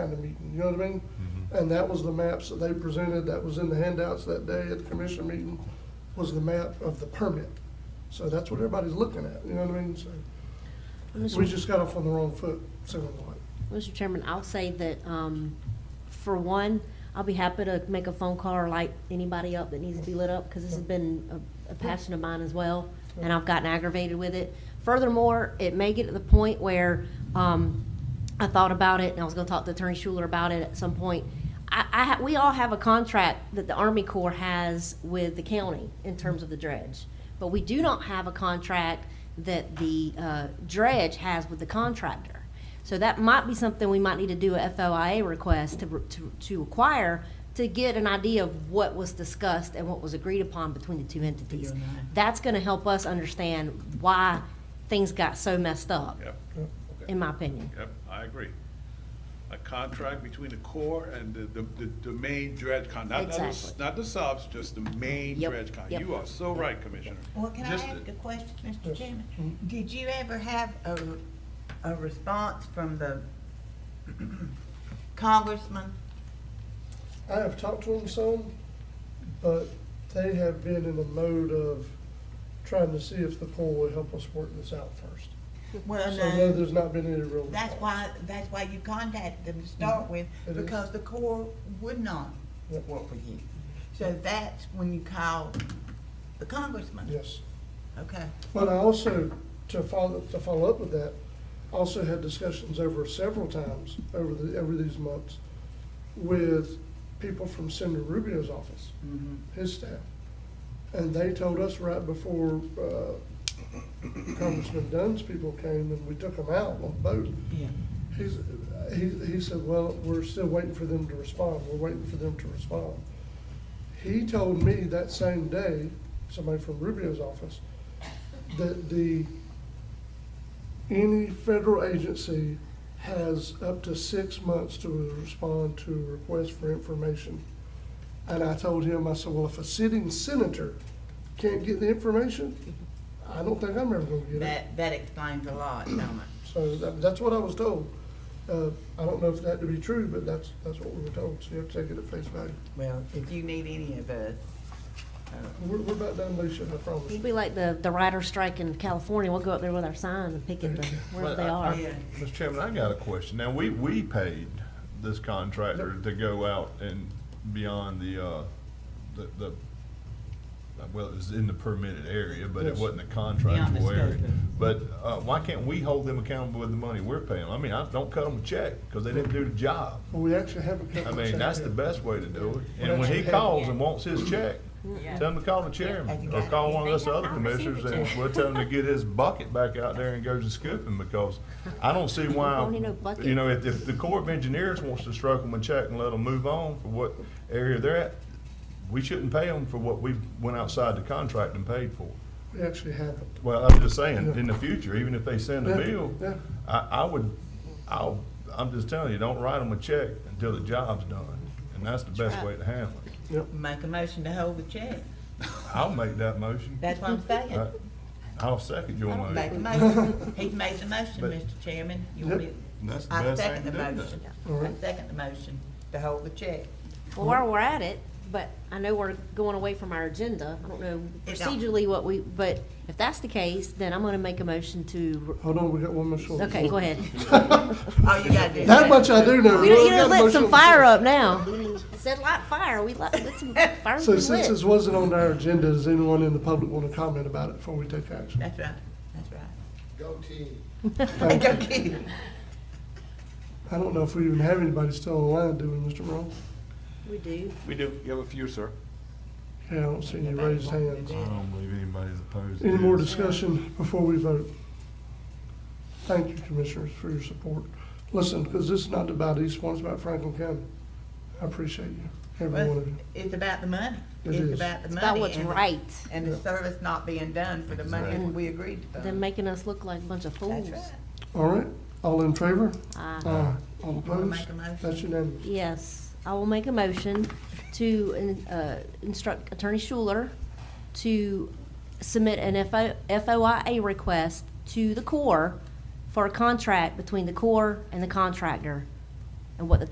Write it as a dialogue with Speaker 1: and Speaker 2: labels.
Speaker 1: kind of meeting, you know what I mean? And that was the maps that they presented, that was in the handouts that day at the commission meeting, was the map of the permit. So that's what everybody's looking at, you know what I mean? So we
Speaker 2: Mr.
Speaker 1: just got off on the wrong foot, sounding like.
Speaker 2: Mr. Chairman, I'll say that, um, for one, I'll be happy to make a phone call or light anybody up that needs to be lit up, because this has been a, a passion of mine as well, and I've gotten aggravated with it. Furthermore, it may get to the point where, um, I thought about it, and I was gonna talk to Attorney Schuler about it at some point. I, I, ha- we all have a contract that the Army Corps has with the county in terms of the dredge. But we do not have a contract that the, uh, dredge has with the contractor. So that might be something we might need to do a FOIA request to, to, to acquire to get an idea of what was discussed and what was agreed upon between the two entities. That's gonna help us understand why things got so messed up,
Speaker 3: Yep,
Speaker 2: in my opinion.
Speaker 3: yep, I agree. A contract between the Corps and the, the, the- the main dredge con, not, not the-
Speaker 2: Exactly.
Speaker 3: not the subs, just the main
Speaker 2: Yep,
Speaker 3: dredge con.
Speaker 2: yep.
Speaker 3: You are so right, Commissioner.
Speaker 4: Well, can I
Speaker 3: Just
Speaker 4: ask
Speaker 3: the-
Speaker 4: a question, Mr.
Speaker 1: Yes. Mm-hmm.
Speaker 4: Chairman? Did you ever have a, a response from the congressman?
Speaker 1: I have talked to them some, but they have been in the mode of trying to see if the pool will help us work this out first.
Speaker 4: Well,
Speaker 1: So no,
Speaker 4: no,
Speaker 1: there's not been any real.
Speaker 4: that's why, that's why you contacted them to start with,
Speaker 1: Mm-hmm. It is.
Speaker 4: because the Corps would not
Speaker 1: Yep.
Speaker 4: work with you. So that's when you called the congressman?
Speaker 1: Yes.
Speaker 4: Okay,
Speaker 1: But I also, to follow, to follow up with that, also had discussions over several times over the, over these months with people from Senator Rubio's office,
Speaker 3: Mm-hmm.
Speaker 1: his staff. And they told us right before, uh, Congressman Dunn's people came and we took them out on the boat.
Speaker 4: yeah.
Speaker 1: He's, uh, he, he said, well, we're still waiting for them to respond, we're waiting for them to respond. He told me that same day, somebody from Rubio's office, that the, any federal agency has up to six months to respond to a request for information. And I told him, I said, well, if a sitting senator can't get the information, I don't think I'm ever gonna get it.
Speaker 4: That, that explains a lot, don't it?
Speaker 1: So that, that's what I was told. Uh, I don't know if that to be true, but that's, that's what we were told, so you have to take it at face value.
Speaker 4: Well, if you need any of us, uh,
Speaker 1: We're, we're about done, Lucia, I promise.
Speaker 2: We'll be like the, the writer strike in California, we'll go up there with our sign and pick at the, wherever they are.
Speaker 4: yeah.
Speaker 5: Mr. Chairman, I got a question. Now, we, we paid this contractor to go out and beyond the, uh, the, the, well, it was in the permitted area, but it
Speaker 1: Yes.
Speaker 5: wasn't a
Speaker 4: Beyond the
Speaker 5: contractual
Speaker 4: scope
Speaker 5: area.
Speaker 4: of-
Speaker 5: But, uh, why can't we hold them accountable with the money we're paying? I mean, I don't cut them a check, cause they didn't do the job.
Speaker 1: Well, we actually have a couple.
Speaker 5: I mean, that's the best way to do it.
Speaker 1: Well,
Speaker 5: And when he
Speaker 1: that's-
Speaker 5: calls and wants his check, tell him to call the chairman,
Speaker 4: Yeah.
Speaker 5: or call one of us other
Speaker 6: I'll receive
Speaker 5: commissioners,
Speaker 6: the
Speaker 5: and
Speaker 6: check.
Speaker 5: we'll tell him to get his bucket back out there and go to scooping, because I don't see why,
Speaker 2: Don't need no bucket.
Speaker 5: you know, if, if the Corps of Engineers wants to stroke them a check and let them move on for what area they're at, we shouldn't pay them for what we went outside the contract and paid for.
Speaker 1: We actually have it.
Speaker 5: Well, I'm just saying, in the future, even if they send a
Speaker 1: Yeah,
Speaker 5: bill,
Speaker 1: yeah.
Speaker 5: I, I would, I'll, I'm just telling you, don't write them a check until the job's done, and that's the best way to handle it.
Speaker 4: Make a motion to hold the check.
Speaker 5: I'll make that motion.
Speaker 4: That's what I'm saying.
Speaker 5: I- I'll second your
Speaker 4: Make a
Speaker 5: motion.
Speaker 4: motion. He's made the motion,
Speaker 5: But-
Speaker 4: Mr. Chairman. You want me-
Speaker 5: That's the
Speaker 4: I
Speaker 5: best
Speaker 4: second
Speaker 5: thing
Speaker 4: the
Speaker 5: to do.
Speaker 4: motion.
Speaker 1: All
Speaker 4: I
Speaker 1: right.
Speaker 4: second the motion to hold the check.
Speaker 2: Well, while we're at it, but I know we're going away from our agenda, I don't know
Speaker 4: It don't.
Speaker 2: procedurally what we, but if that's the case, then I'm gonna make a motion to,
Speaker 1: Hold on, we got one more short.
Speaker 2: okay, go ahead.
Speaker 4: All you gotta do. is
Speaker 1: That
Speaker 4: make-
Speaker 1: much I do know.
Speaker 2: You
Speaker 1: We
Speaker 2: know,
Speaker 1: only
Speaker 2: you done
Speaker 1: got a
Speaker 2: lit some
Speaker 1: motion on the
Speaker 2: fire
Speaker 1: floor.
Speaker 2: up now. Said light fire, we lit, lit some fire
Speaker 1: So
Speaker 2: we
Speaker 1: since this
Speaker 2: lit.
Speaker 1: wasn't on our agenda, does anyone in the public want to comment about it before we take action?
Speaker 4: That's right, that's right.
Speaker 7: Go team.
Speaker 1: Thank you.
Speaker 4: Go kid.
Speaker 1: I don't know if we even have anybody still online, do we, Mr. Morrow?
Speaker 2: We do.
Speaker 3: We do, you have a few, sir.
Speaker 1: Yeah, I don't see any raised hands.
Speaker 5: I don't believe anybody's opposed to
Speaker 1: Any more
Speaker 5: this.
Speaker 1: discussion before we vote? Thank you, Commissioners, for your support. Listen, because this is not about East Swan, it's about Franklin County. I appreciate you, every one of you.
Speaker 4: Well, It's about the money.
Speaker 1: It
Speaker 4: It's
Speaker 1: is.
Speaker 4: about the money.
Speaker 2: About what's
Speaker 4: and-
Speaker 2: right,
Speaker 4: And the
Speaker 1: Yeah.
Speaker 4: service not being done for the money
Speaker 5: Exactly.
Speaker 4: that we agreed to.
Speaker 1: uh,
Speaker 4: fund.
Speaker 2: then making us look like a bunch of
Speaker 4: That's
Speaker 2: fools.
Speaker 4: right.
Speaker 1: All right, all in favor?
Speaker 2: Aye.
Speaker 1: Aye. All
Speaker 4: Wanna
Speaker 1: opposed?
Speaker 4: make a motion?
Speaker 1: That's unanimous.
Speaker 2: Yes, I will make a motion to in- uh, instruct Attorney Schuler to submit an FO FOIA request to the Corps for a contract between the Corps and the contractor and what the